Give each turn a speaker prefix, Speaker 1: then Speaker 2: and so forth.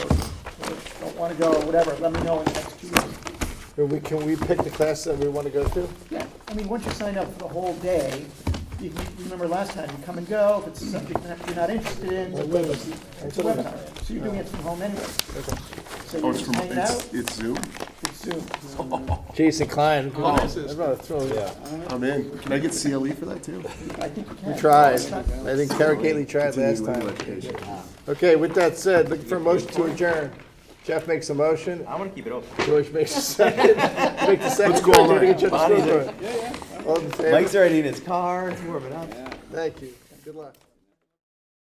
Speaker 1: want to go, whatever, let me know in the next two weeks.
Speaker 2: Or we, can we pick the class that we want to go to?
Speaker 1: Yeah, I mean, once you sign up for the whole day, you can, you remember last time, you come and go, if it's a subject that you're not interested in,
Speaker 2: Or
Speaker 1: it's
Speaker 2: women's?
Speaker 1: a webinar. So you're doing it from home anyway. So
Speaker 3: Oh,
Speaker 1: you're
Speaker 3: it's
Speaker 1: just
Speaker 3: from,
Speaker 1: hanging out,
Speaker 3: it's, it's Zoom?
Speaker 1: it's Zoom.
Speaker 2: Jason Klein.
Speaker 3: Oh, this is-
Speaker 2: I'm gonna throw, yeah.
Speaker 3: I'm in. Can I get CLE for that too?
Speaker 1: I think you can.
Speaker 2: Tried. I think Tara Gately tried last
Speaker 3: Continuing
Speaker 2: time.
Speaker 3: education.
Speaker 2: Okay, with that said, looking for a motion to adjourn. Jeff makes a motion,
Speaker 4: I want to keep it open.
Speaker 2: George makes a second. Make the second.
Speaker 3: Let's go all
Speaker 2: Do it
Speaker 3: night.
Speaker 2: again, Jeff, let's go for it. All in favor?
Speaker 4: Mike's already in his car. It's warming up.
Speaker 2: Thank you. Good luck.